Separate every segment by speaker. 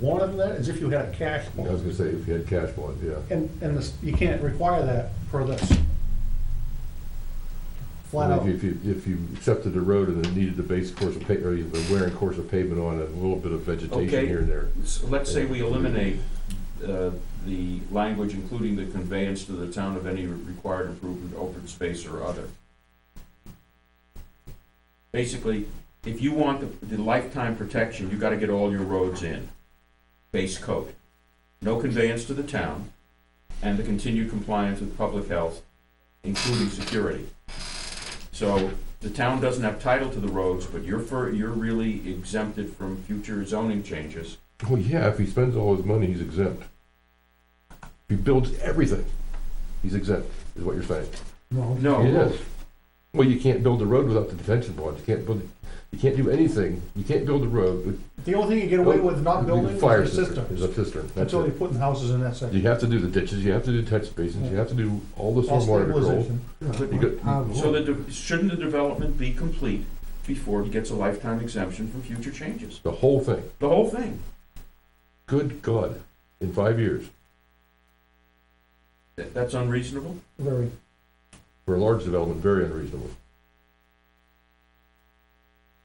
Speaker 1: wanted that is if you had a cash
Speaker 2: I was
Speaker 1: bond.
Speaker 2: gonna say, if you had cash bond, yeah.
Speaker 1: And, and this, you can't require that per this. Flat
Speaker 2: If
Speaker 1: out.
Speaker 2: you- If you, if you accepted the road and then needed the base course of pa, or the wear and course of pavement on it, a little bit of vegetation
Speaker 3: Okay.
Speaker 2: here and there.
Speaker 3: So Let's say we eliminate uh, the language including the conveyance to the town of any required improvement, open space or other. Basically, if you want the- the lifetime protection, you gotta get all your roads in, base coat. No conveyance to the town, and the continued compliance with public health, including security. So the town doesn't have title to the roads, but you're for, you're really exempted from future zoning changes.
Speaker 2: Well, yeah, if he spends all his money, he's exempt. If he builds everything, he's exempt, is what you're saying.
Speaker 1: No,
Speaker 3: No.
Speaker 2: It is. Well, you can't build a road without the detention bond, you can't build, you can't do anything, you can't build a road with.
Speaker 1: the only thing you get away with not building is
Speaker 2: Fire
Speaker 1: the
Speaker 2: Is a
Speaker 1: systems,
Speaker 2: cistern, that's
Speaker 1: until you're
Speaker 2: it.
Speaker 1: putting houses in that
Speaker 2: You
Speaker 1: section.
Speaker 2: have to do the ditches, you have to do catch basins, you have to do all the
Speaker 1: All
Speaker 2: stormwater control.
Speaker 1: stabilization.
Speaker 2: You got-
Speaker 3: So the, de- shouldn't the development be complete before he gets a lifetime exemption from future changes?
Speaker 2: The whole thing,
Speaker 3: The whole thing?
Speaker 2: good God, in five years,
Speaker 3: That- That's unreasonable?
Speaker 1: Very,
Speaker 2: for a large development, very unreasonable.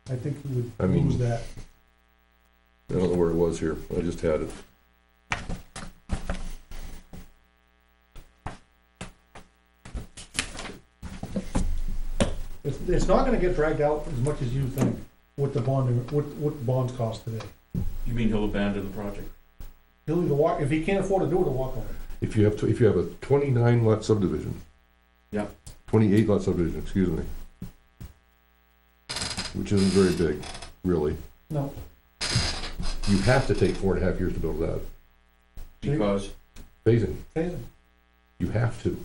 Speaker 1: I think we would
Speaker 2: I mean-
Speaker 1: lose that.
Speaker 2: I don't know where it was here, I just had it.
Speaker 1: It's, it's not gonna get dragged out as much as you think with the bonding, what, what bonds cost today.
Speaker 3: You mean he'll abandon the project?
Speaker 1: He'll either walk, if he can't afford to do it, he'll walk away.
Speaker 2: If you have, tw- if you have a twenty-nine lot subdivision.
Speaker 3: Yeah.
Speaker 2: Twenty-eight lot subdivision, excuse me. Which isn't very big, really.
Speaker 1: No,
Speaker 2: You have to take four and a half years to build it out.
Speaker 1: Sure.
Speaker 3: Because,
Speaker 2: Phasing,
Speaker 1: okay,
Speaker 2: you have to.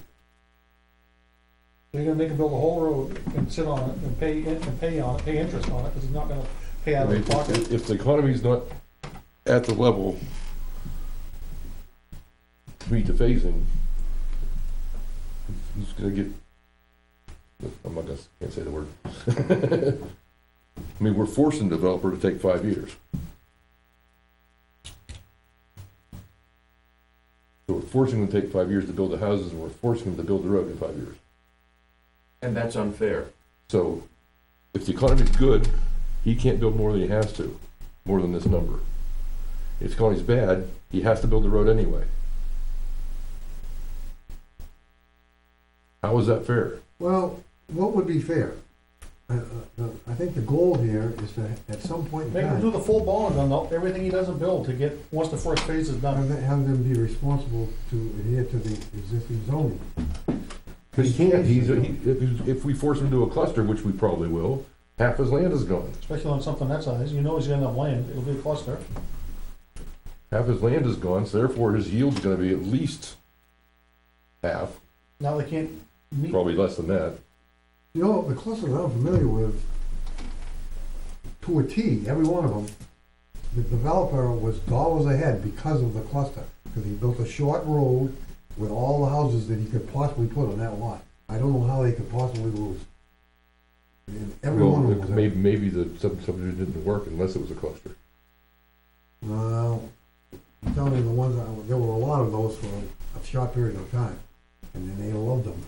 Speaker 1: they're gonna make him build a whole road and sit on it and pay, in- and pay on it, pay interest on it, cause he's not gonna pay out of his pocket.
Speaker 2: If if the economy's not at the level to meet the phasing, he's gonna get, I'm not gonna, can't say the word. I mean, we're forcing the developer to take five years. So we're forcing them to take five years to build the houses, and we're forcing them to build the road in five years.
Speaker 3: and that's unfair.
Speaker 2: So if the economy's good, he can't build more than he has to, more than this number. If the economy's bad, he has to build the road anyway. How is that fair?
Speaker 4: Well, what would be fair? I- I I think the goal here is to, at some point in
Speaker 1: Make him
Speaker 4: time,
Speaker 1: do the full bond on the- everything he doesn't build to get, once the first phase is
Speaker 4: have
Speaker 1: done.
Speaker 4: them- have them be responsible to adhere to the existing zoning.
Speaker 2: Because he can't, he's, he- if, if we force him to a cluster, which we probably will, half his land is gone.
Speaker 1: Especially on something that size, you know he's gonna have land, it'll be a cluster.
Speaker 2: Half his land is gone, so therefore his yield's gonna be at least half,
Speaker 1: Now they can't meet,
Speaker 2: probably less than that.
Speaker 4: You know, the clusters I'm familiar with, to a T, every one of them, the developer was dollars ahead because of the cluster. Because he built a short road with all the houses that he could possibly put on that lot. I don't know how they could possibly lose. And every one of them was.
Speaker 2: Well, maybe, maybe the sub- subdivision didn't work unless it was a cluster.
Speaker 4: No, I'm telling you, the ones, I- there were a lot of those for a short period of time, and then they loved them.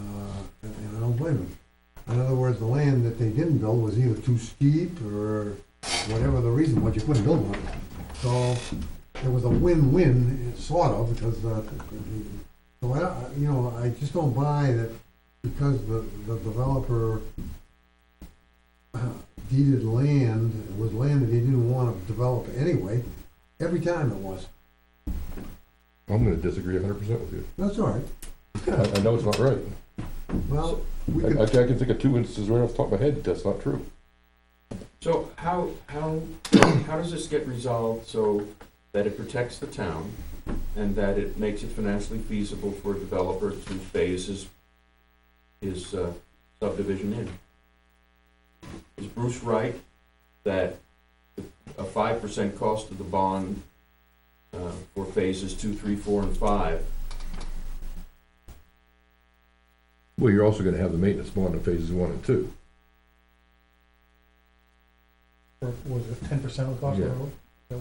Speaker 4: Uh, and and I don't blame them. In other words, the land that they didn't build was either too steep or whatever the reason, was you couldn't build on it. So it was a win-win, sort of, because, uh, so I, don't- you know, I just don't buy that because the, the developer deeded land, it was land that he didn't want to develop anyway, every time it was.
Speaker 2: I'm gonna disagree hundred percent with you.
Speaker 4: That's all right.
Speaker 2: I, I know it's not right.
Speaker 4: Well, we
Speaker 2: I, I
Speaker 4: could,
Speaker 2: can I can think of two instances right off the top of my head that that's not true.
Speaker 3: So how, how, how does this get resolved so that it protects the town and that it makes it financially feasible for a developer to phase his, his uh, subdivision in? Is Bruce right that a five percent cost of the bond uh, for phases two, three, four, and five?
Speaker 2: Well, you're also gonna have the maintenance bond in phases one and two.
Speaker 1: for, was it ten percent of the cost of the
Speaker 2: Yeah.
Speaker 1: road?